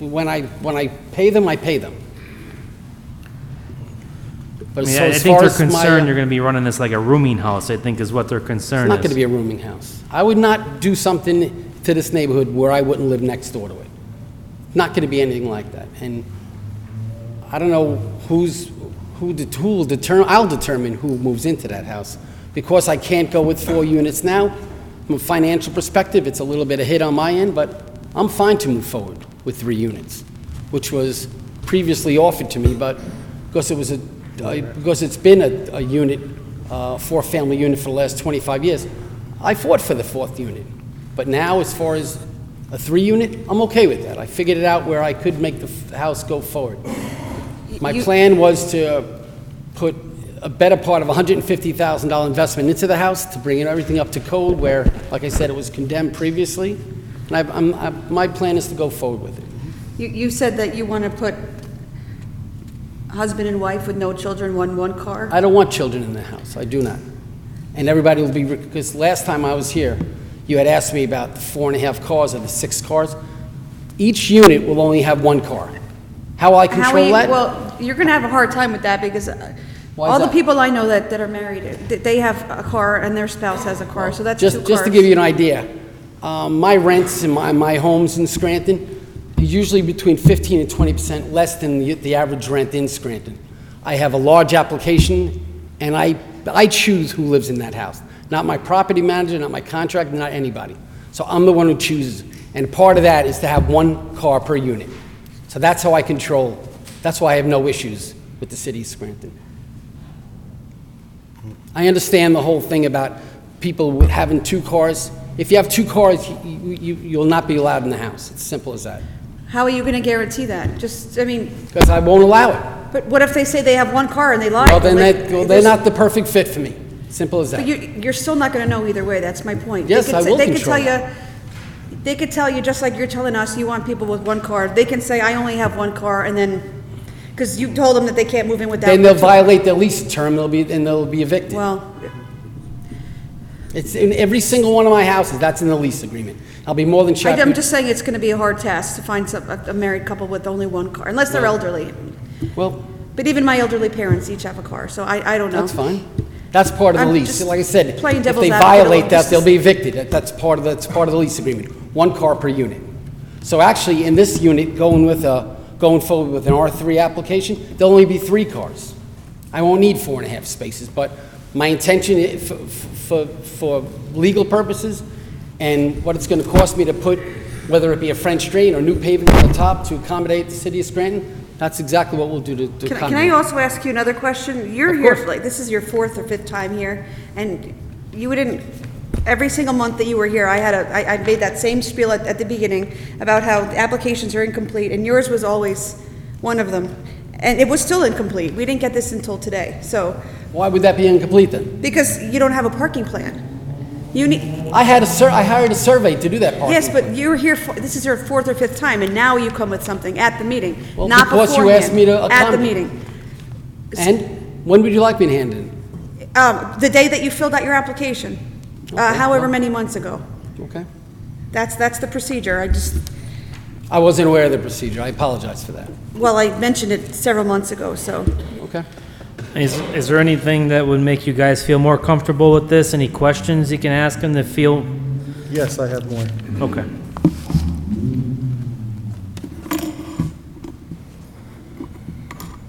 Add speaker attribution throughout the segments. Speaker 1: when I, when I pay them, I pay them. But
Speaker 2: I mean,
Speaker 1: so
Speaker 2: I I
Speaker 1: as
Speaker 2: think
Speaker 1: far
Speaker 2: they're
Speaker 1: as my, uh,
Speaker 2: concerned you're going to be running this like a rooming house, I think is what their
Speaker 1: It's
Speaker 2: concern
Speaker 1: not gonna
Speaker 2: is.
Speaker 1: be a rooming house. I would not do something to this neighborhood where I wouldn't live next door to it. Not gonna be anything like that. And I don't know who's, who, det- who will determine, I'll determine who moves into that house. Because I can't go with four units now, from a financial perspective, it's a little bit of hit on my end, but I'm fine to move forward with three units, which was previously offered to me, but because it was a, uh, because it's been a, a unit, uh, four-family unit for the last 25 years, I fought for the fourth unit. But now, as far as a three-unit, I'm okay with that. I figured it out where I could make the f- house go forward. My
Speaker 3: You-
Speaker 1: plan was to put a better part of $150,000 investment into the house to bring everything up to code where, like I said, it was condemned previously. And I, I'm, I- my plan is to go forward with it.
Speaker 3: You, you said that you want to put husband and wife with no children, one, one car?
Speaker 1: I don't want children in the house, I do not. And everybody will be, because last time I was here, you had asked me about the four and a half cars or the six cars. Each unit will only have one car. How will I
Speaker 3: How are
Speaker 1: control
Speaker 3: you,
Speaker 1: that?
Speaker 3: well, you're going to have a hard time with that because uh,
Speaker 1: Why is
Speaker 3: all the
Speaker 1: that?
Speaker 3: people I know that, that are married, th- they have a car and their spouse has a car, so that's two
Speaker 1: Just,
Speaker 3: cars.
Speaker 1: just to give you an idea, um, my rents in my, my homes in Scranton is usually between 15 and 20% less than the, the average rent in Scranton. I have a large application, and I, I choose who lives in that house. Not my property manager, not my contractor, not anybody. So I'm the one who chooses. And part of that is to have one car per unit. So that's how I control, that's why I have no issues with the city of Scranton. I understand the whole thing about people with- having two cars. If you have two cars, you- you, you'll not be allowed in the house. It's simple as that.
Speaker 3: How are you going to guarantee that? Just, I mean,
Speaker 1: Because I won't allow it.
Speaker 3: but what if they say they have one car and they lie?
Speaker 1: Well, then
Speaker 3: Like,
Speaker 1: that, well, they're
Speaker 3: there's-
Speaker 1: not the perfect fit for me. Simple as
Speaker 3: But
Speaker 1: that.
Speaker 3: you, you're still not going to know either way, that's my point. They
Speaker 1: Yes,
Speaker 3: could
Speaker 1: I
Speaker 3: say-
Speaker 1: will
Speaker 3: They could
Speaker 1: control
Speaker 3: tell you, they could tell you, just like you're telling us, you want people with one car, they can say, I only have one car, and then, because you told them that they can't move in without.
Speaker 1: Then they'll
Speaker 3: the two-
Speaker 1: violate their lease term, they'll be, and they'll be evicted.
Speaker 3: Well,
Speaker 1: It's in every single one of my houses, that's in the lease agreement. I'll be more than
Speaker 3: I- I'm
Speaker 1: happy.
Speaker 3: just saying it's going to be a hard task to find some, a a married couple with only one car, unless they're elderly.
Speaker 1: Well,
Speaker 3: But even my elderly parents each have a car, so I, I don't know.
Speaker 1: that's fine. That's part of the
Speaker 3: I'm
Speaker 1: lease.
Speaker 3: just
Speaker 1: Like I said,
Speaker 3: playing
Speaker 1: if
Speaker 3: devil's
Speaker 1: they
Speaker 3: advocate a little.
Speaker 1: violate that,
Speaker 3: This
Speaker 1: they'll
Speaker 3: is-
Speaker 1: be evicted. That- That's part of, the- that's part of the lease agreement. One car per unit. So actually, in this unit, going with a, going forward with an R3 application, there'll only be three cars. I won't need four and a half spaces, but my intention i- for, for, for legal purposes and what it's gonna cost me to put, whether it be a French drain or new pavement on the top to accommodate the city of Scranton, that's exactly what we'll do to to
Speaker 3: Can I-
Speaker 1: accommodate.
Speaker 3: can I also ask you another question? You're
Speaker 1: Of
Speaker 3: here,
Speaker 1: course.
Speaker 3: like, this is your fourth or fifth time here, and you didn't, every single month that you were here, I had a, I, I made that same spiel at, at the beginning about how the applications are incomplete, and yours was always one of them. And it was still incomplete. We didn't get this until today, so,
Speaker 1: Why would that be incomplete then?
Speaker 3: because you don't have a parking plan. You need,
Speaker 1: I had a sur, I hired a survey to do that part.
Speaker 3: yes, but you were here, for- this is your fourth or fifth time, and now you come with something at the meeting,
Speaker 1: Well,
Speaker 3: not
Speaker 1: because you
Speaker 3: beforehand.
Speaker 1: asked me to
Speaker 3: At the
Speaker 1: accommodate.
Speaker 3: meeting.
Speaker 1: And when would you like me to hand it in?
Speaker 3: Um, the day that you filled out your application, uh, however many months ago.
Speaker 1: Okay?
Speaker 3: That's, that's the procedure. I just,
Speaker 1: I wasn't aware of the procedure. I apologize for that.
Speaker 3: well, I mentioned it several months ago, so.
Speaker 1: Okay?
Speaker 2: Is, is there anything that would make you guys feel more comfortable with this? Any questions you can ask them to feel,
Speaker 4: Yes, I have more.
Speaker 2: okay.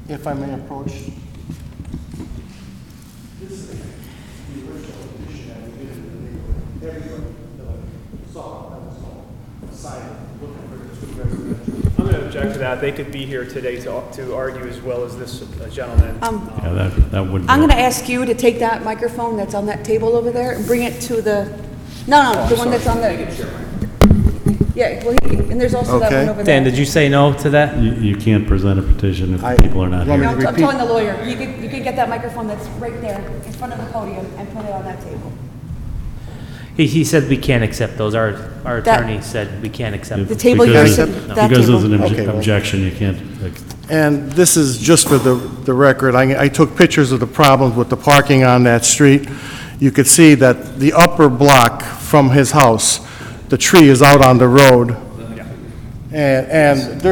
Speaker 4: If I may approach.
Speaker 5: I'm going to object to that. They could be here today to to argue as well as this gentleman.
Speaker 6: Yeah, that, that would be.
Speaker 3: I'm gonna ask you to take that microphone that's on that table over there and bring it to the, no, no, the one that's on the. Yeah, well, he- and there's also that
Speaker 4: Okay.
Speaker 3: one over there.
Speaker 2: Dan, did you say no to that?
Speaker 6: You, you can't present a petition
Speaker 4: I-
Speaker 6: if people are not
Speaker 4: want me
Speaker 3: No,
Speaker 6: here.
Speaker 3: I'm
Speaker 4: to-
Speaker 3: I'm
Speaker 4: Repeat.
Speaker 3: telling the lawyer. You can, you can get that microphone that's right there in front of the podium and put it on that table.
Speaker 2: He, he said we can't accept those. Our, our
Speaker 3: That-
Speaker 2: attorney said we can't accept.
Speaker 3: The
Speaker 2: them.
Speaker 3: table you're
Speaker 6: Because-
Speaker 3: sitting, that
Speaker 6: Because there's an
Speaker 3: table.
Speaker 4: Okay,
Speaker 6: obje-
Speaker 4: well-
Speaker 6: objection, you can't, like,
Speaker 4: And this is just for the, the record, I, I took pictures of the problems with the parking on that street. You could see that the upper block from his house, the tree is out on the road. And, and there